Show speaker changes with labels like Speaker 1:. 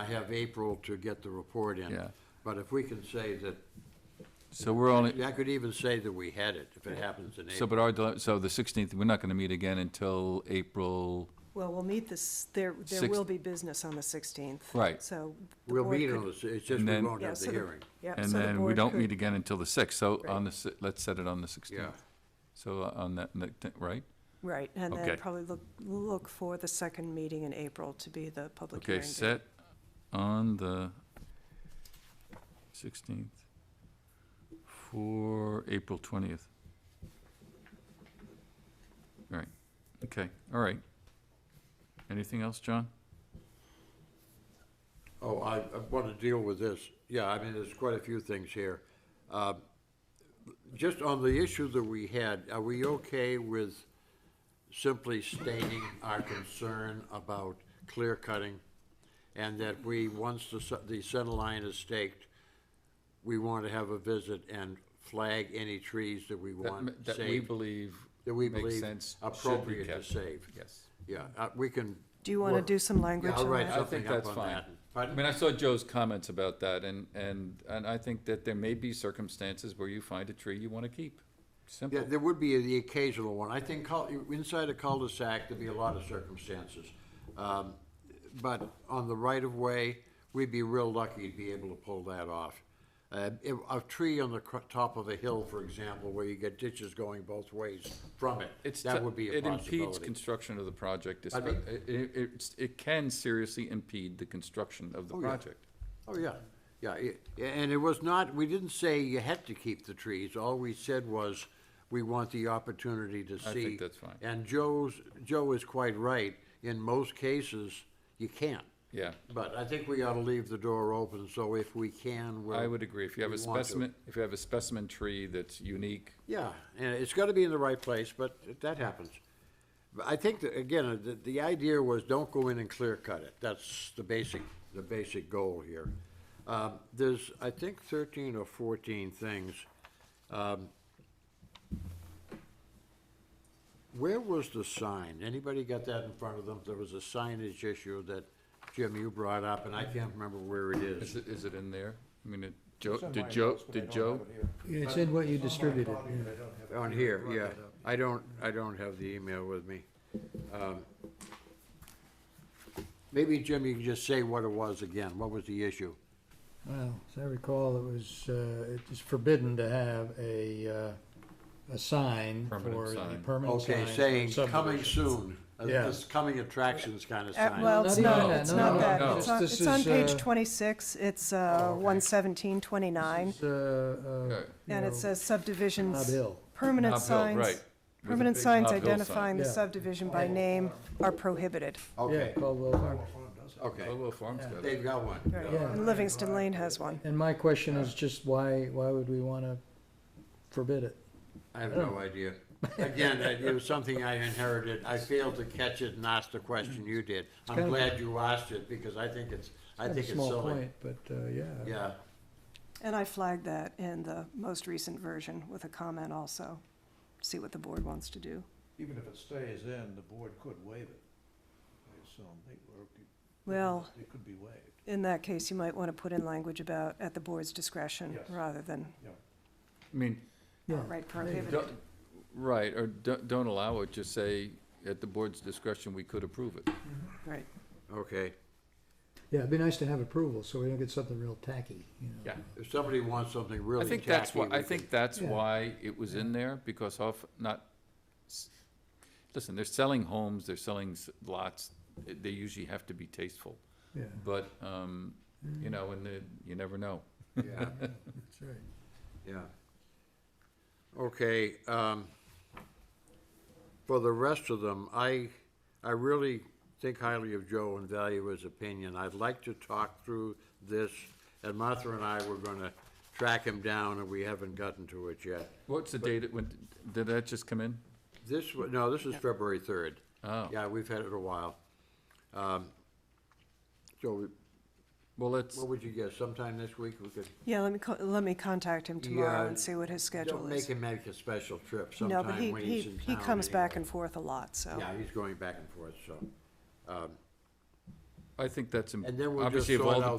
Speaker 1: I have April to get the report in.
Speaker 2: Yeah.
Speaker 1: But if we can say that,
Speaker 2: So we're only,
Speaker 1: I could even say that we had it, if it happens in April.
Speaker 2: so but our, dile- so the 16th, we're not going to meet again until April,
Speaker 3: Well, we'll meet this, there, there
Speaker 2: Six-
Speaker 3: will be business on the 16th.
Speaker 2: Right.
Speaker 3: So. the
Speaker 1: We'll
Speaker 3: board
Speaker 1: meet
Speaker 3: could-
Speaker 1: on the, it's just
Speaker 2: And
Speaker 1: we
Speaker 2: then-
Speaker 1: won't
Speaker 3: yeah,
Speaker 1: have
Speaker 3: so
Speaker 1: the hearing.
Speaker 3: Yep,
Speaker 2: and
Speaker 3: so the
Speaker 2: then we
Speaker 3: board
Speaker 2: don't
Speaker 3: could-
Speaker 2: meet again until the 6th. So
Speaker 3: Right.
Speaker 2: on the, si- let's set it on the 16th.
Speaker 1: Yeah.
Speaker 2: So uh, on that, that thi- right?
Speaker 3: Right, and
Speaker 2: Okay.
Speaker 3: then probably look, look for the second meeting in April to be the public hearing.
Speaker 2: Okay,
Speaker 3: date.
Speaker 2: set on the 16th for April 20th. All right, okay, all right. Anything else, John?
Speaker 1: Oh, I, I want to deal with this. Yeah, I mean, there's quite a few things here. Uh, Just on the issue that we had, are we okay with simply stating our concern about clear cutting? And that we, once the, se- the center line is staked, we want to have a visit and flag any trees that we want saved?
Speaker 2: believe
Speaker 1: that we believe appropriate to save.
Speaker 2: Yes.
Speaker 1: Yeah, uh, we can.
Speaker 3: Do you want to
Speaker 1: work-
Speaker 3: do some language
Speaker 1: Yeah, I'll
Speaker 3: on
Speaker 1: write
Speaker 3: that?
Speaker 2: I think
Speaker 1: something up
Speaker 2: that's
Speaker 1: on
Speaker 2: fine.
Speaker 1: that.
Speaker 2: I
Speaker 1: Pardon?
Speaker 2: mean, I saw Joe's comments about that, and, and, and I think that there may be circumstances where you find a tree you want to keep.
Speaker 1: Yeah,
Speaker 2: Simple.
Speaker 1: there would be the occasional one. I think cul- inside a cul-de-sac, there'd be a lot of circumstances. Um, But on the right-of-way, we'd be real lucky to be able to pull that off. Uh, if- A tree on the cr- top of a hill, for example, where you get ditches going both ways from it,
Speaker 2: It's
Speaker 1: that
Speaker 2: t-
Speaker 1: would be a
Speaker 2: It impedes
Speaker 1: possibility.
Speaker 2: construction of the project. espe-
Speaker 1: Pardon
Speaker 2: It, it, it's- it can seriously impede the construction of the
Speaker 1: yeah.
Speaker 2: project.
Speaker 1: Oh, yeah, yeah, it- and it was not, we didn't say you had to keep the trees, all we said was, we want the opportunity to see.
Speaker 2: think that's fine.
Speaker 1: And Joe's, Joe is quite right, in most cases, you can't.
Speaker 2: Yeah.
Speaker 1: But I think we ought to leave the door open, so if we can, we'll.
Speaker 2: I would agree. If you have a
Speaker 1: we want to.
Speaker 2: specimen, if you have a specimen tree that's unique,
Speaker 1: Yeah, and it's gotta be in the right place, but that happens. But I think that, again, uh, the, the idea was don't go in and clear cut it. That's the basic, the basic goal here. Um, there's, I think, thirteen or fourteen things. Um, Where was the sign? Anybody got that in front of them? There was a signage issue that, Jim, you brought up, and I can't remember where it is.
Speaker 2: is it, is it in there? I mean, it- Joe, did Joe, did Joe?
Speaker 4: It's in what you distributed.
Speaker 1: On here, yeah. I don't, I don't have the email with me. Um, Maybe, Jim, you can just say what it was again. What was the issue?
Speaker 4: Well, as I recall, it was, uh, it is forbidden to have a, uh, a sign for
Speaker 2: Permanent
Speaker 4: a
Speaker 2: sign.
Speaker 4: permanent sign.
Speaker 1: Okay,
Speaker 4: for
Speaker 1: saying coming
Speaker 4: subdivision.
Speaker 1: soon, uh,
Speaker 4: Yeah.
Speaker 1: this coming attractions kind of
Speaker 3: Uh,
Speaker 1: sign.
Speaker 3: Well, it's
Speaker 4: Not even
Speaker 3: not,
Speaker 4: that,
Speaker 3: it's
Speaker 4: no,
Speaker 3: not
Speaker 2: no,
Speaker 3: that.
Speaker 2: no.
Speaker 3: It's on,
Speaker 4: This
Speaker 3: it's on
Speaker 4: is,
Speaker 3: page
Speaker 4: uh,
Speaker 3: 26, it's
Speaker 1: Oh,
Speaker 3: uh, 11729,
Speaker 4: It's, uh,
Speaker 2: Okay.
Speaker 4: uh,
Speaker 3: and
Speaker 4: you
Speaker 3: it
Speaker 4: know,
Speaker 3: says
Speaker 4: Nob
Speaker 3: subdivisions,
Speaker 4: Hill.
Speaker 3: permanent
Speaker 2: Nob Hill,
Speaker 3: signs.
Speaker 2: right. With a
Speaker 3: Permanent
Speaker 2: big
Speaker 3: signs
Speaker 2: Nob Hill sign.
Speaker 3: identifying the
Speaker 4: Yeah.
Speaker 3: subdivision by name are prohibited.
Speaker 4: Yeah,
Speaker 1: Okay,
Speaker 4: Caldwell Farm.
Speaker 1: okay.
Speaker 2: Caldwell Farms got it.
Speaker 1: They've got one.
Speaker 3: Right.
Speaker 4: Yeah.
Speaker 3: And Livingston Lane has one.
Speaker 4: And my question is just why, why would we want to forbid it?
Speaker 1: I have no idea. Again, that- it was something I inherited. I failed to catch it and ask the question you did. I'm
Speaker 4: kind of-
Speaker 1: glad you asked it because I think it's, I think it's
Speaker 4: Small
Speaker 1: silly.
Speaker 4: point, but, uh, yeah.
Speaker 1: Yeah.
Speaker 3: And I flagged that in the most recent version with a comment also. See what the board wants to do.
Speaker 5: Even if it stays in, the board could waive it, I assume, they, or. it could-
Speaker 3: Well-
Speaker 5: It could be waived,
Speaker 3: In that case, you might want to put in language about at the board's discretion
Speaker 5: Yes.
Speaker 3: rather than
Speaker 5: yeah.
Speaker 2: I mean,
Speaker 4: Yeah.
Speaker 3: outright prohibited.
Speaker 2: don't- right, or don't, don't allow it, just say, at the board's discretion, we could approve it.
Speaker 3: Right.
Speaker 1: Okay.
Speaker 4: Yeah, it'd be nice to have approval, so we don't get something real tacky, you know.
Speaker 2: Yeah.
Speaker 1: If somebody wants something really
Speaker 2: I
Speaker 1: tacky.
Speaker 2: think that's why,
Speaker 1: we
Speaker 2: I
Speaker 1: can-
Speaker 2: think that's
Speaker 4: Yeah.
Speaker 2: why it was in there, because of, not, s- listen, they're selling homes, they're selling s- lots, eh, they usually have to be tasteful.
Speaker 4: Yeah,
Speaker 2: But, um, you know, and the, you never know.
Speaker 1: Yeah.
Speaker 4: that's right.
Speaker 1: Yeah. Okay, um, for the rest of them, I, I really think highly of Joe and value his opinion. I'd like to talk through this, and Martha and I were gonna track him down, and we haven't gotten to it yet.
Speaker 2: What's the date, it went? did that just come in?
Speaker 1: This, wa- no, this is February third.
Speaker 2: Oh.
Speaker 1: Yeah, we've had it a while. Um, So,
Speaker 2: Well, let's,
Speaker 1: what would you guess, sometime this week we could?
Speaker 3: Yeah, let me, co- let me contact him tomorrow
Speaker 1: Yeah,
Speaker 3: and see what his
Speaker 1: Don't
Speaker 3: schedule
Speaker 1: make
Speaker 3: is.
Speaker 1: him make a special trip
Speaker 3: No, but
Speaker 1: sometime
Speaker 3: he,
Speaker 1: when
Speaker 3: he,
Speaker 1: he's in town.
Speaker 3: he comes
Speaker 1: anyway.
Speaker 3: back and forth a lot, so.
Speaker 1: Yeah, he's going back and forth, so.
Speaker 2: I think that's, im-
Speaker 1: And then we'll just
Speaker 2: obviously of
Speaker 1: sort
Speaker 2: all
Speaker 1: out
Speaker 2: the,